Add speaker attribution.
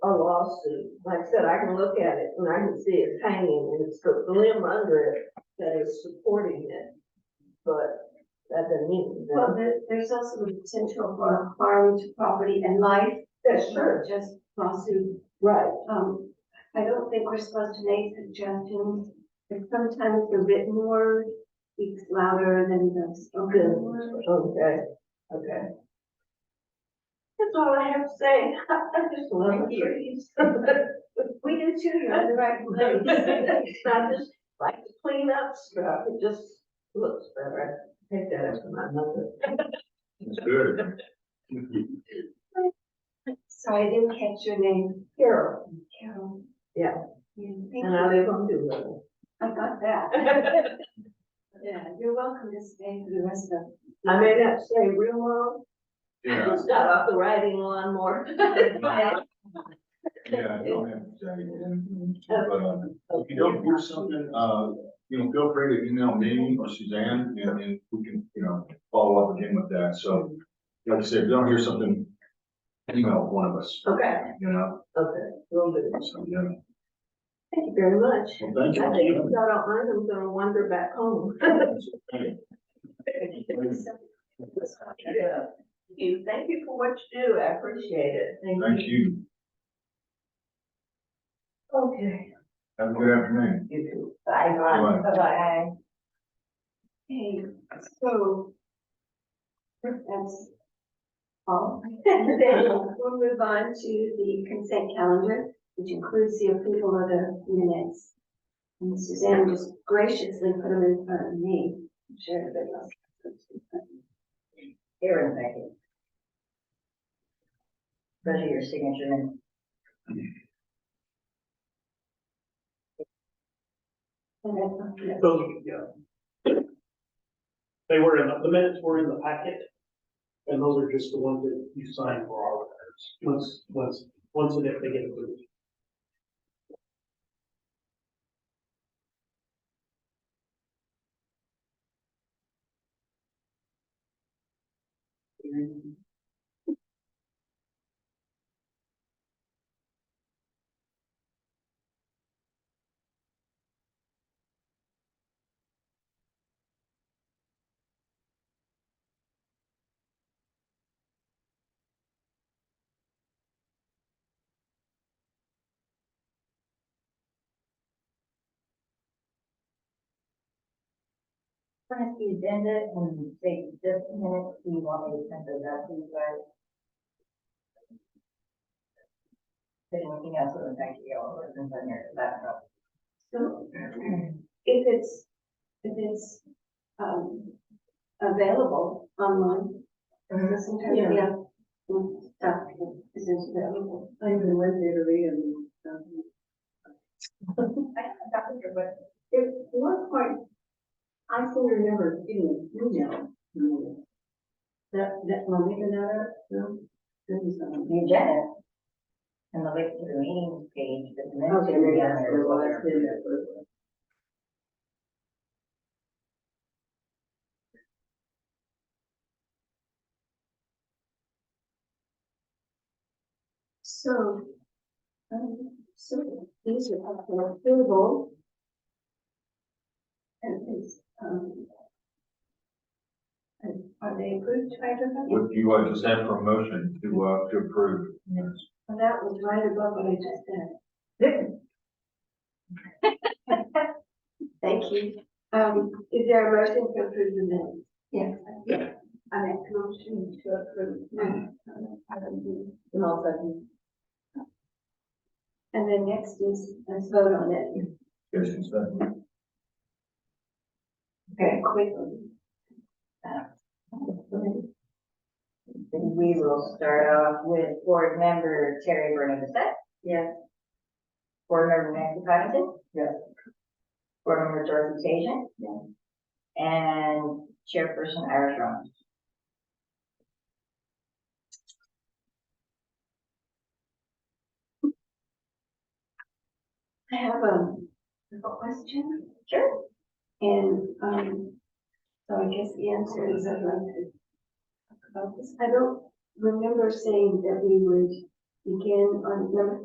Speaker 1: else, and like I said, I can look at it and I can see it's hanging and it's got the limb under it that is supporting it. But that doesn't mean. that-
Speaker 2: Well, there, there's also the potential for harm to property and life.
Speaker 1: That's true,
Speaker 2: Just lawsuit.
Speaker 1: right,
Speaker 2: Um, I don't think we're supposed to make suggestions, but sometimes the written word speaks louder than the
Speaker 1: Yeah.
Speaker 2: spoken word.
Speaker 1: okay, okay.
Speaker 2: That's all I have to say.
Speaker 1: I just love
Speaker 2: Thank you.
Speaker 1: trees.
Speaker 2: We do too, you're on the right place.
Speaker 1: I just like to clean up stuff, it just looks better. I Take that after my mother.
Speaker 3: It's good.
Speaker 2: So I didn't catch your name,
Speaker 1: Carol,
Speaker 2: Carol.
Speaker 1: Yeah.
Speaker 2: Yeah, thank
Speaker 1: and I
Speaker 2: you.
Speaker 1: live on Doolittle.
Speaker 2: I got that. Yeah, you're welcome to stay for the rest of.
Speaker 1: I may not stay real long, I
Speaker 3: Yeah,
Speaker 1: just got off the riding lawnmower.
Speaker 3: yeah, I don't have to say it. But, uh, if you don't do something, uh, you know, feel free to email me or Suzanne and, and we can, you know, follow up again with that. So, like I said, if you don't hear something, email one of us,
Speaker 1: Okay,
Speaker 3: you know,
Speaker 1: okay, will do.
Speaker 3: so, yeah.
Speaker 1: Thank you very much.
Speaker 3: Well,
Speaker 1: I
Speaker 3: thank
Speaker 1: think if
Speaker 3: you.
Speaker 1: y'all don't mind, I'm gonna wander back home. Yeah. Thank you, thank you for what you do, I appreciate it, thank
Speaker 3: Thank
Speaker 1: you.
Speaker 3: you.
Speaker 1: Okay.
Speaker 3: Have a good afternoon.
Speaker 1: You too. Bye.
Speaker 3: Bye.
Speaker 1: Bye.
Speaker 2: Okay, so. That's all. Then we'll move on to the consent calendar, which includes the approval of the minutes. And Suzanne just graciously put them in front of me. I'm sure everybody else.
Speaker 4: Aaron Beckett. Those are your signature and.
Speaker 2: And that's-
Speaker 5: Those, yeah. They were in, the- the minutes were in the packet, and those are just the ones that you signed for our records, once, once, once and if they get approved.
Speaker 4: Print the agenda and say just a minute, we want me to send those out to you guys. Then anything else that would affect you, all of us in there, that's not.
Speaker 2: So if it's, if it's, um, available online, because sometimes we have mm, stuff that isn't available.
Speaker 1: I even went there to read them. um,
Speaker 4: I have a doctor, but
Speaker 1: At one point, I seem to remember getting an email. from you. That, that, am I making that up? No? That is, um,
Speaker 4: the agenda. And the link to the meeting page, the minutes.
Speaker 1: Okay, maybe that's what it was, maybe that's what it was.
Speaker 2: So, um, so these are up for approval. And it's, um, and are they approved by everybody?
Speaker 3: Would you, uh, just have for a motion to, uh, to approve? Yes.
Speaker 2: Well, That was right above what I just said. Thank you. Um, is there a motion to approve the minutes? Yes. Yeah. I make a motion to approve. minutes. Item B.
Speaker 1: And all of a sudden,
Speaker 2: And then next is, let's vote on it.
Speaker 3: Yes, it's done.
Speaker 2: Very quickly.
Speaker 4: Then we will start off with board member Terry Burney Bissette. Yes. Board member Nancy Cottington. Yes. Board member Dorothy Tajin. Yes. And chairperson Irish Rollins.
Speaker 2: I have um, a question.
Speaker 4: Sure.
Speaker 2: And, um, so I guess the answer is I'd like to talk about this. I don't remember saying that we would begin on number